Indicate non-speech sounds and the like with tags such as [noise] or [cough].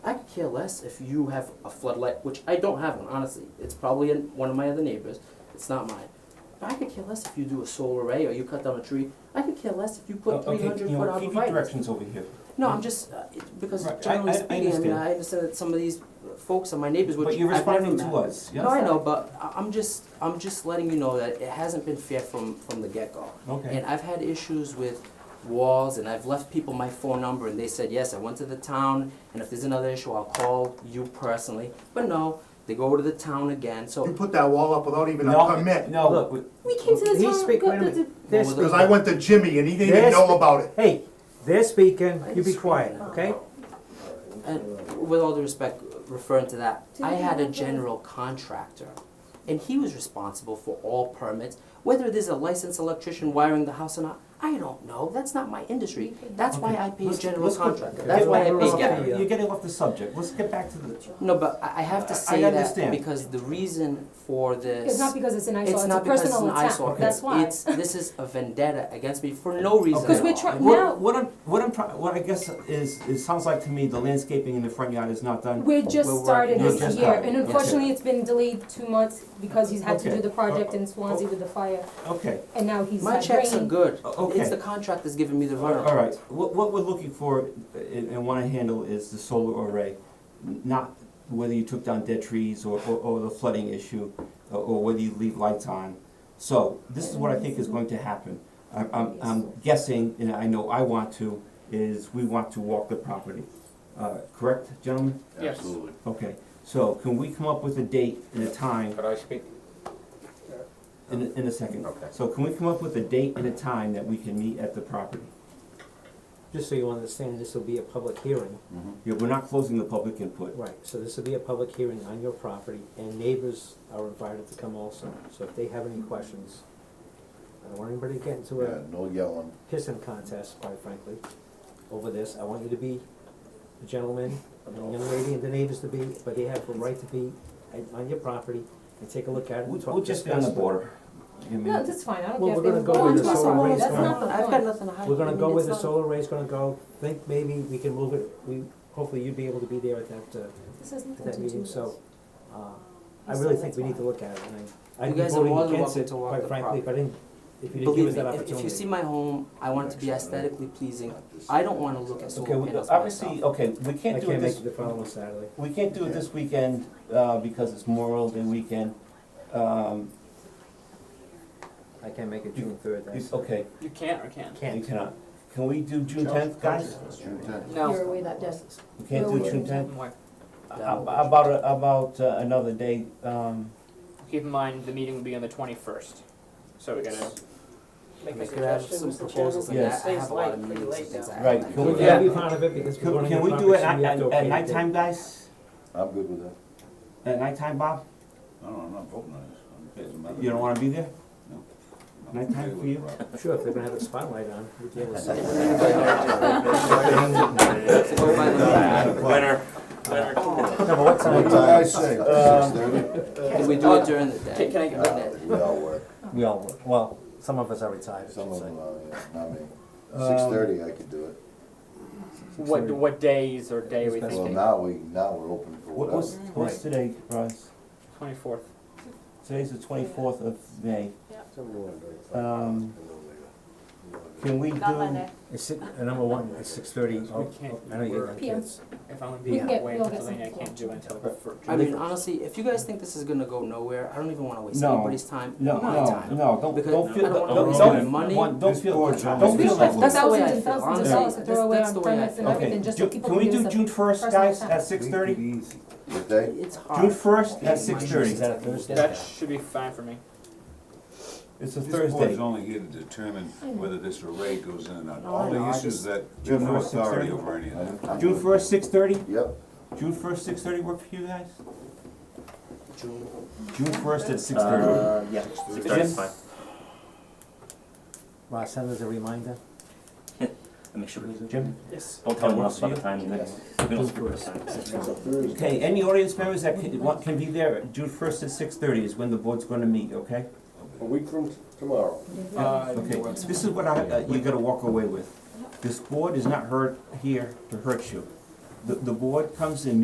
care less if you have a floodlight, which I don't have one, honestly. It's probably in one of my other neighbors. It's not mine. But I could care less if you do a solar array or you cut down a tree. I could care less if you O- put three hundred Oh, Okay, you foot know, keep your arborvitae. directions over here. No, I'm just, uh, it- because Right, I- generally I- I speaking, I mean, understand. I understand that some of these uh, folks are my neighbors, which But I've you're never met. responding to us, yes? No, I know, but I- I'm just, I'm just letting you know that it hasn't been fair from, from the get-go. Okay. And I've had issues with walls, and I've left people my phone number, and they said, yes, I went to the town, and if there's another issue, I'll call you personally. But no, they go to the town again, You so. put that wall up without even a No, permit, No, look, we- We came to the He's town. speak- go- wait a the- minute. the- They're Well, sp- because I went to Jimmy and he didn't even Yes. know about it. Hey, they're speaking, you be quiet, okay? And with all due respect, referring to that, Do I you had a have a- general contractor, and he was responsible for all permits, whether there's a licensed electrician wiring the house or not, I don't know, that's not my industry, that's why I pay a let's- general let's go- contractor, get that's why I back- pay let's Gary. get- Gary. You're getting off the subject, let's get back to the, No, but I, I have I- to I say that understand. because the reason for this. It's not because it's an eyesore, It's it's a not because it's personal an eyesore. attack, that's why. Oh, It's, this is a vendetta against me for no reason at all. 'Cause we're try- now- what, what I'm, what I'm trying, what I guess is, it sounds like to me, the landscaping in the front yard is not done. We're just We're working- started You're this just year, starting, and yes. unfortunately, it's been delayed two months because he's had to Okay. do the Uh, project in Swansea oh. with the fire, Okay, and now he's My had checks are rain. good. O- okay. It's the contract that's giving me the runaround. all right, what, what we're looking for uh, and, and wanna handle is the solar array, n- not whether you took down dead trees or, or, or the flooding issue, or, or whether you leave lights on. So, this is what I think is going to happen. I'm, I'm, I'm guessing, and I know I want to, is we want to walk the property. Uh, correct, gentlemen? Yes. Absolutely. Okay, so can we come up with a date and a time Could I speak? in, in a second? Okay. So can we come up with a date and a time that we can meet at the property? Just so you understand, this will be a public hearing. Yeah, we're not closing the public input. Right, so this will be a public hearing on your property, and neighbors are invited to come also. So if they have any questions, I don't want anybody to get into Yeah, a no yelling. pissing contest, quite frankly, over this. I want you to be a gentleman, and the young lady and the neighbors to be, but they have a right to be on your property and take a look at it. We're, and talk- we're just on the discuss it. border. I mean, No, that's fine, I don't care Well, if we're they gonna were go going to with the us or solar not, arrays that's now. not the I've got point. nothing to hide. We're gonna go mean, with the it's not- solar array's gonna go, think maybe we can move it, we, hopefully you'd be able to be there at that, uh, This has at nothing that to do meeting, with so, uh, I So really think that's we need why. to look at it, and I, I'd You be guys are voting more than against welcome it, to walk quite the frankly, if I didn't, if you didn't give Believe us me, that if, opportunity. if you see my home, I want it to be aesthetically pleasing. I don't wanna look at Okay, solar we- panels obviously, myself. okay, we I can't do it can't make this, it the following Saturday. we can't do it this weekend, uh, because it's Memorial Day weekend. Um, I can't make it You- June third, you- okay, You can't or can't? you Can't. cannot. Can we do June tenth, guys? It's June tenth. that. No. You're away that day. We can't Where do we June can- tenth? No. About, a- about uh, another day, um, Keep in mind, the meeting will be on the twenty-first, so we gotta. I could have some proposals and Yes. that, I have a lot of meetings and things I have. Right, to can do. We're we- gonna be part of it because we're Can, running can a we do it conference and at, we have at, to at okay it. nighttime, guys? I'm good with that. At nighttime, Bob? I don't know, I'm not voting on this. I'm- doesn't matter. You don't wanna be there? No. Nighttime for you? Sure, if they're gonna have a spotlight on, we deal with it. So go by the- Winner. No, but what What time? did I say? Six thirty? Can we do it during the day? Can- can I get rid of We all work. We all, work. well, some of us are retired, I Some should of say. them, are, yeah, not me. Um, Six thirty, I could do it. What, what days or day are we That's Well, thinking? now we, now we're open for Um, What, what's, whatever. what's today, Russ? Twenty-fourth. Today's the twenty-fourth of May. Um, Can Can we Not Monday. do, It's, si- uh, number one, it's six thirty, We I can't, know you got PM. kids. if I'm gonna We be can get- away in we'll get Pennsylvania, I something. can't do it until the fir- I mean, honestly, if you guys think this is gonna go nowhere, I don't even wanna waste No. anybody's time, no, my no, time. no, don't, Because don't feel, I don't wanna don't, waste don't, my money. want- don't This feel, poor don't gentleman. feel like. That's the way I thousands and feel, thousands of honestly. dollars to That's- throw away that's on the way I permits and feel. Okay, everything, just so Ju- people can can we use do it. June first, personal guys, time. at six thirty? What day? It's hard. June first Okay, at six thirty, is that a Thursday? That should be fine for me. It's a This board's Thursday. only here to determine whether this array goes in or not. No, I All know, the I issues just- that, you have June no first, six authority thirty. over any of that. I'm- I'm June good. first, six thirty? Yep, June first, six thirty work for you guys? June. June first at six thirty. Uh, yeah. Six That's fine. Ross, send us [laughs] a reminder. I'll Make sure we Jim? Yes. don't tell Okay, anyone we'll else see about the time. yes. Okay, any audience members that can, want, can be there, June first at six thirty is when the board's gonna meet, okay? A week from tomorrow. Uh, Okay, this is what I, uh, you gotta walk away with. This board is not hurt here to hurt you. The, the board comes and